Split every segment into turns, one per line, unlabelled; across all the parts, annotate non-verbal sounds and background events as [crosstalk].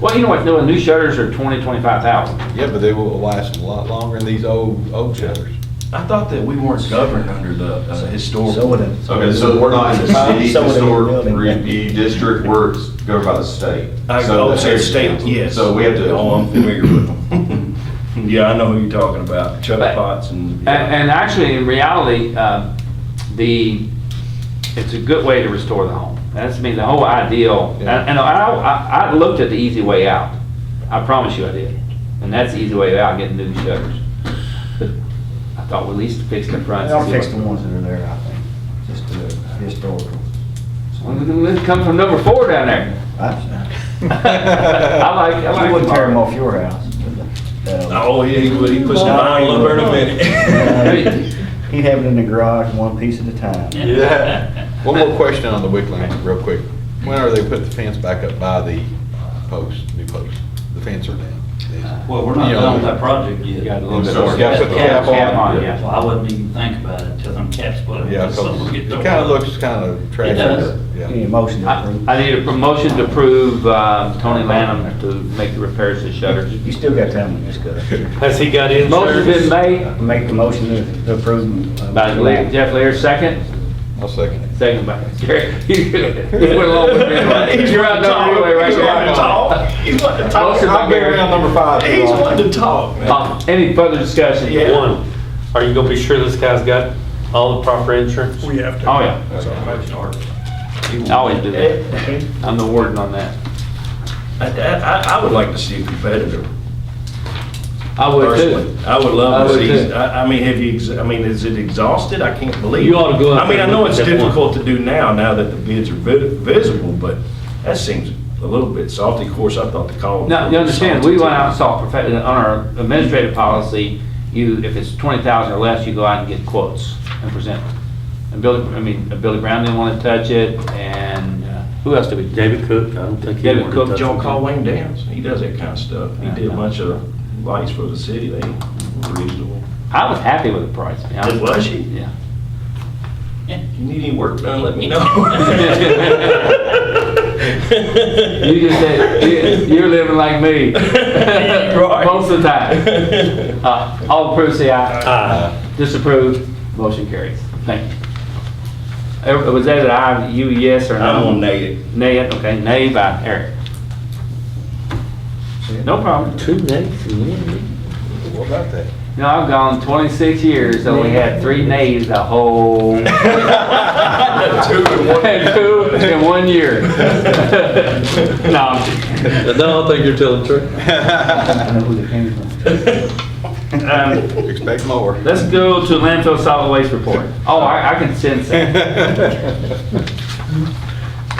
Well, you know what, no, the new shutters are twenty, twenty-five thousand.
Yeah, but they will last a lot longer than these old, old shutters.
I thought that we weren't governed under the uh,
So would
historical.
it.
Okay, so we're not in the city
So would it be
historic
building.
review district, we're governed by the state.
I-
So
oh, so
there's-
state, yes.
So we have to. [laughs]
Oh, I'm familiar with [laughs] them. Yeah, I know who you're talking about, Chuck
But-
Potts and.
And, and actually, in reality, uh, the, it's a good way to restore the home. That's, I mean, the whole ideal, and, and I, I, I looked at the easy way out. I promise you I did. And that's the easy way out, getting new shutters. But I thought we at least fix the front.
I'll fix the ones that are there, I think, just to historical.
It comes from number four down there.
[laughs]
I like, I like.
You wouldn't tear them
them all.
off your house. Uh,
Oh, yeah, he would, he puts the vinyl up there in a minute.
He'd have it in the garage, one piece at a time.
Yeah. [laughs] One more question on the Wickland, real quick. When are they put the fence back up by the post, new post? The fence
Uh,
are down.
Well, we're not
Yeah.
done with that project yet.
You got a little bit
So
more.
you gotta
put the cap on.
Cap on, yeah.
Well, I wouldn't even think about it till them caps put up.
Yeah,
till something
'cause
get
it
done.
kind of looks kind of trashy.
does.
Yeah.
Any motion to
I
approve?
I need a promotion to approve uh, Tony Lanham to make the repairs to shutters.
You still got time to discuss.
[laughs]
Has he got insurance?
Motion's been made
Make the motion to approve. uh,
by Le- Jeff Lear, second.
I'll second it.
Second by Gary. [laughs] You went along with me.
[laughs]
right there.
He's
You're out
talk.
there anyway, right
He's wanting to
there.
talk. He's wanting to talk.
Motion by Barry.
number five.
He's wanting to talk, man.
Uh, Any further discussion?
Yeah.
One, are you gonna be sure this guy's got all the
[laughs]
proper insurance?
We have to.
Oh, yeah.
That's our motion, Art.
I always do that. I'm the warden on that.
Eh, I, I, I would like to see a competitor.
Oh,
I would too.
personally. I would love
I
to
would
see,
too.
I, I mean, have you, ex- I mean, is it exhausted? I can't believe.
You ought to go up
I mean, I
there and
know
look
it's
at that one.
difficult to do now, now that the bids are vi- visible, but that seems a little bit salty. Of course, I thought the call.
Now, you understand, we went out and saw, profe- uh, on our administrative policy, you, if it's twenty thousand or less, you go out and get quotes and present them. And Billy, I mean, uh, Billy Brown didn't want to touch it, and uh, who else did we?
David Cook, I don't think he.
David
wanted
Cook,
to touch
Y'all
it.
call Wayne Downs. He does that kind of stuff. He did a bunch of lights for the city. They were reasonable.
I was happy with the price. I mean, I
Did was she?
[laughs]
Yeah.
If you need any work done, let me know. [laughs]
You just said, you- you're living like me.
[laughs]
Right.
Most of the time. Uh, All approve, say aye.
Ah,
Disapprove, motion carries. Thank you. Uh, Was that an aye, you yes or no?
I'm on negative.
Nay, okay, nay by Eric. No problem.
two names, yeah.
What about that?
No, I've gone 26 years, and we had three nays the
[laughs]
whole,
Two and one.
had [laughs] two in one year. [laughs] No, I'm kidding.
No, I think you're telling the truth.
I know who they came
[laughs]
from. [laughs]
Um,
Expect more.
Let's go to landfill solid waste report. Oh, I, I can sense [laughs] that.
[laughs]
[laughs]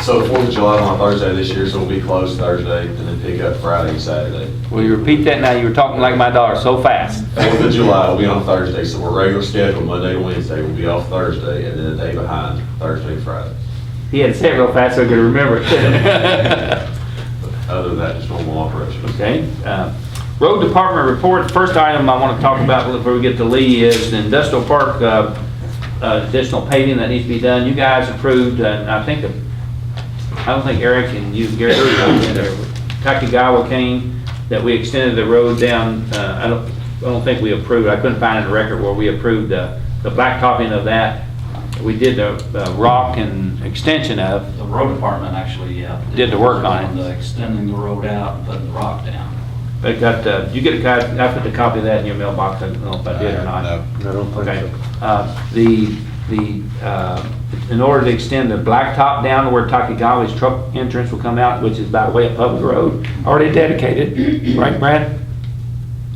So Fourth of July on Thursday this year, so we'll be closed Thursday and then pick up Friday and Saturday.
Will you repeat that now? You were talking like my daughter, so fast.
Fourth of July will be on Thursday, so we're regular scheduled Monday to Wednesday, we'll be off Thursday and then a day behind Thursday and Friday.
He had to say it real fast so I could remember it.
Other than that, just normal operations.
Okay. uh, Road Department report, first item I want to talk about before we get to Lee is the industrial park uh, uh, additional paving that needs to be done. You guys approved, and I think, I don't think Eric and you, Gary, Takigawa came, that we extended the road down, uh, I don't, I don't think we approved, I couldn't find in the record where we approved uh, the blacktopping of that. We did the uh, rock and extension of,
The road department actually, yeah.
Did the work on it.
the Extending the road out and putting the rock down.
They got, uh, you get a copy, I put the copy of that in your mailbox, I don't know if I did or not.
Uh, No.
I don't think
Okay.
so.
Uh, The, the, uh, in order to extend the blacktop down to where Takigawa's truck entrance will come out, which is by way of public road, already dedicated, right, Brad?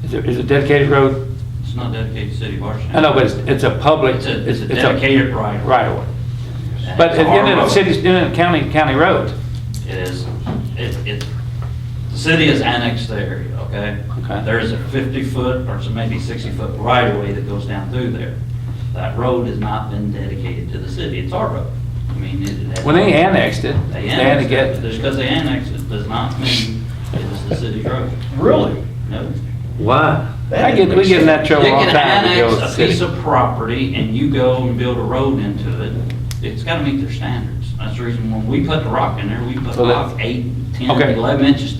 Is it, is it dedicated road?
It's not dedicated to city of Washington.
I know, but it's, it's a public.
It's a, it's a dedicated right.
Right of way. But
It's our
in a
road.
city, in a county, county road.
It is, it, it, the city has annexed the area, okay?
Okay.
There is a 50-foot or so maybe 60-foot right-of-way that goes down through there. That road has not been dedicated to the city, it's our road. I mean, it. it-
When they annexed it,
They
they had to
annexed it,
get,
but just because they annexed it does not mean it is the city road.
Really?
No.
Why?
I get, we get in that trouble
You
all
can
the time. to go with
annex a
the
piece
city.
of property and you go and build a road into it, it's gotta meet their standards. That's the reason when we put the rock in there, we put
So that-
rock eight, ten,
Okay.
eleven inches